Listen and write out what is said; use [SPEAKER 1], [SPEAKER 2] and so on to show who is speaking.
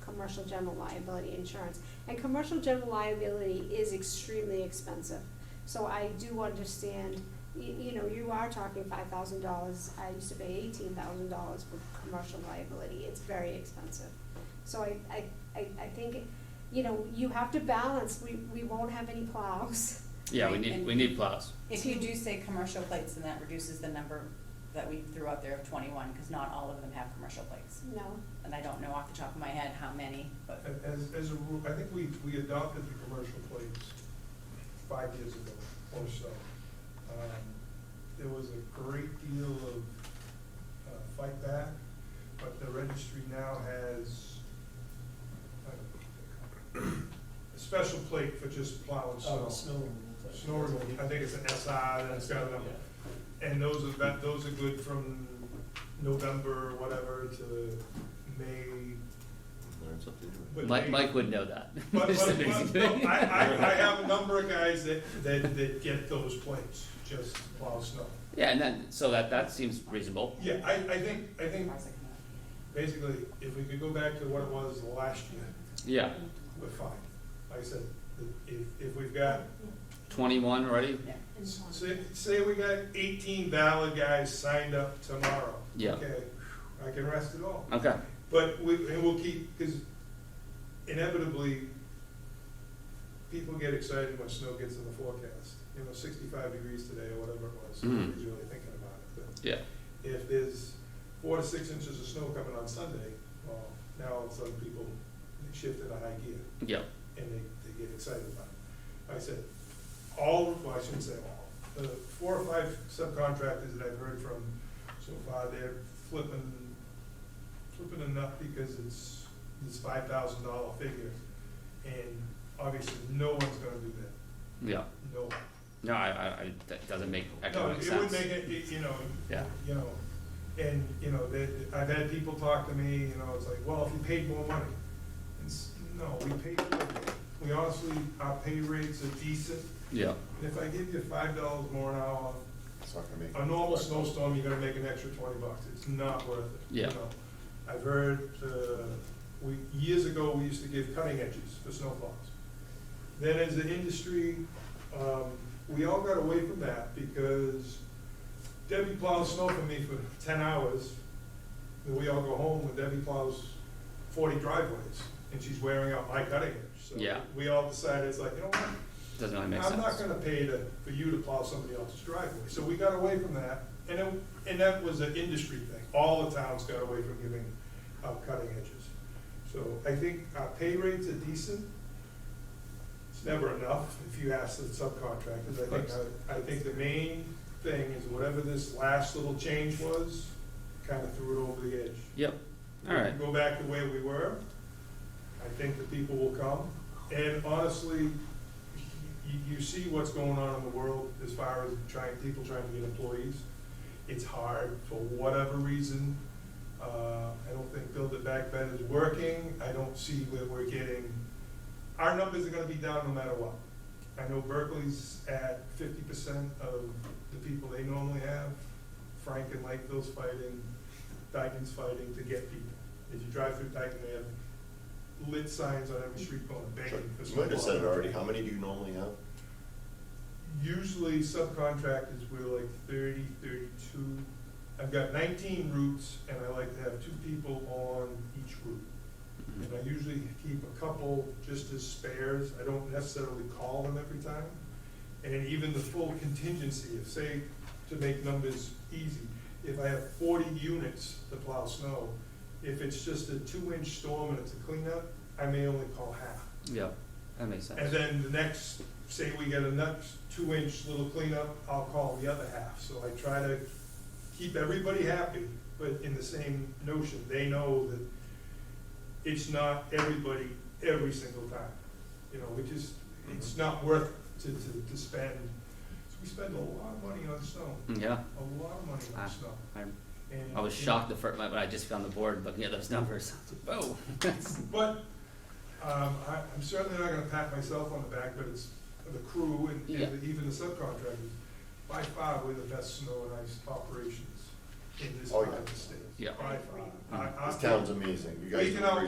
[SPEAKER 1] commercial general liability insurance. And commercial general liability is extremely expensive. So I do understand, you, you know, you are talking five thousand dollars, I used to pay eighteen thousand dollars for commercial liability, it's very expensive. So I, I, I, I think, you know, you have to balance, we, we won't have any plows.
[SPEAKER 2] Yeah, we
[SPEAKER 3] Right,
[SPEAKER 2] need,
[SPEAKER 3] and-
[SPEAKER 2] we need plows.
[SPEAKER 3] If you do say commercial plates, then that reduces the number that we threw out there of twenty-one, because not all of them have commercial plates.
[SPEAKER 1] No,
[SPEAKER 3] And I don't know off the top of my head how many, but,
[SPEAKER 4] A- As, as a rule, I think we, we adopted the commercial plates five years ago or so. Um, There was a great deal of uh, fight back, but the registry now has uh, a special plate for just plow and snow.
[SPEAKER 5] Oh, snow removal.
[SPEAKER 4] Snow removal, I think it's an SI, that's got a number. And those are, that, those are good from November, whatever, to May,
[SPEAKER 6] Learn something new.
[SPEAKER 4] But
[SPEAKER 2] Mike,
[SPEAKER 4] we-
[SPEAKER 2] Mike would know that.
[SPEAKER 4] But, but,
[SPEAKER 2] It's
[SPEAKER 4] but,
[SPEAKER 2] amazing.
[SPEAKER 4] no, I, I, I have a number of guys that, that, that get those plates, just plow snow.
[SPEAKER 2] Yeah, and then, so that, that seems reasonable.
[SPEAKER 4] Yeah, I, I think, I think,
[SPEAKER 3] Ours are coming up.
[SPEAKER 4] basically, if we could go back to what it was last year,
[SPEAKER 2] Yeah,
[SPEAKER 4] we're fine. Like I said, if, if we've got,
[SPEAKER 2] twenty-one already?
[SPEAKER 3] yeah.
[SPEAKER 4] say, say we got eighteen valid guys signed up tomorrow.
[SPEAKER 2] Yeah.
[SPEAKER 4] Okay, I can rest it all.
[SPEAKER 2] Okay,
[SPEAKER 4] But we, and we'll keep, because inevitably, people get excited when snow gets in the forecast. You know, sixty-five degrees today or whatever it was,
[SPEAKER 2] Mm.
[SPEAKER 4] nobody's really thinking about it. But
[SPEAKER 2] yeah,
[SPEAKER 4] if there's four to six inches of snow coming on Sunday, well, now all of a sudden people shift into high gear
[SPEAKER 2] yeah,
[SPEAKER 4] and they, they get excited about it. I said, all, well, I shouldn't say all, the four or five subcontractors that I've heard from so far, they're flipping, flipping a nut because it's this five thousand dollar figure. And obviously, no one's gonna do that,
[SPEAKER 2] yeah.
[SPEAKER 4] no one.
[SPEAKER 2] No, I, I, I, that doesn't make
[SPEAKER 4] No,
[SPEAKER 2] economic
[SPEAKER 4] it
[SPEAKER 2] sense.
[SPEAKER 4] would make it, it- you know,
[SPEAKER 2] Yeah.
[SPEAKER 4] you know, and, you know, that, I've had people talk to me, you know, it's like, well, if you paid more money. It's, no, we paid, we honestly, our pay rates are decent.
[SPEAKER 2] Yeah,
[SPEAKER 4] If I give you five dollars more an hour,
[SPEAKER 6] It's not gonna make.
[SPEAKER 4] a normal snowstorm, you're gonna make an extra twenty bucks, it's not worth it. you
[SPEAKER 2] Yeah.
[SPEAKER 4] know. I've heard, uh, we, years ago, we used to give cutting edges for snowplows. Then as an industry, um, we all got away from that because Debbie plows snow for me for ten hours. And we all go home when Debbie plows forty driveways and she's wearing out my cutting edge. So
[SPEAKER 2] Yeah.
[SPEAKER 4] We all decided, it's like, you know what?
[SPEAKER 2] doesn't really make sense.
[SPEAKER 4] I'm not gonna pay to, for you to plow somebody else's driveway, so we got away from that, and it, and that was an industry thing, all the towns got away from giving out cutting edges. So I think our pay rates are decent, it's never enough, if you ask the subcontractors, I think, uh, I, I think the main thing is whatever this last little change was, kinda threw it over the edge.
[SPEAKER 2] Yep, all right,
[SPEAKER 4] Go back to where we were, I think the people will come. And honestly, you, you see what's going on in the world as far as trying, people trying to get employees. It's hard for whatever reason. Uh, I don't think Build It Back Better is working. I don't see where we're getting, our numbers are gonna be down no matter what. I know Berkeley's at fifty percent of the people they normally have. Frank and Lakeville's fighting, Dyken's fighting to get people. If you drive through Dyken, they have lit signs on every street corner
[SPEAKER 6] Sure.
[SPEAKER 4] begging for
[SPEAKER 6] You might have said it
[SPEAKER 4] snowplow.
[SPEAKER 6] already, how many do you normally have?
[SPEAKER 4] Usually subcontractors, we're like 30, 32. thirty-two. I've got nineteen routes and I like to have two people on each route.
[SPEAKER 2] Mm-hmm.
[SPEAKER 4] And I usually keep a couple just as spares, I don't necessarily call them every time. And even the full contingency, if say, to make numbers easy, if I have forty units to plow snow, if it's just a two-inch storm and it's a cleanup, I may only call half.
[SPEAKER 2] yeah, that makes sense.
[SPEAKER 4] And then the next, say we get a next two-inch little cleanup, I'll call the other half. So I try to keep everybody happy, but in the same notion, they know that it's not everybody every single time. You know, we just, it's
[SPEAKER 2] Mm-hmm.
[SPEAKER 4] not worth to, to, to spend, we spend a lot of money on snow,
[SPEAKER 2] Mm, Yeah,
[SPEAKER 4] a lot of money
[SPEAKER 2] Ah.
[SPEAKER 4] on snow.
[SPEAKER 2] I,
[SPEAKER 4] And,
[SPEAKER 2] I was
[SPEAKER 4] you know,
[SPEAKER 2] shocked the first, when I just found the board looking at those numbers, whoa.
[SPEAKER 4] But, um, I, I'm certainly not gonna pat myself on the back, but it's the crew and,
[SPEAKER 2] Yeah.
[SPEAKER 4] and even the subcontractors. By far, we're the best snow and ice operations in this
[SPEAKER 6] Oh,
[SPEAKER 4] part
[SPEAKER 6] yeah.
[SPEAKER 4] of the state.
[SPEAKER 2] Yeah.
[SPEAKER 4] By far. I- I-
[SPEAKER 6] This town's amazing, Uh, you guys
[SPEAKER 4] Speaking
[SPEAKER 6] do
[SPEAKER 4] of-
[SPEAKER 6] a great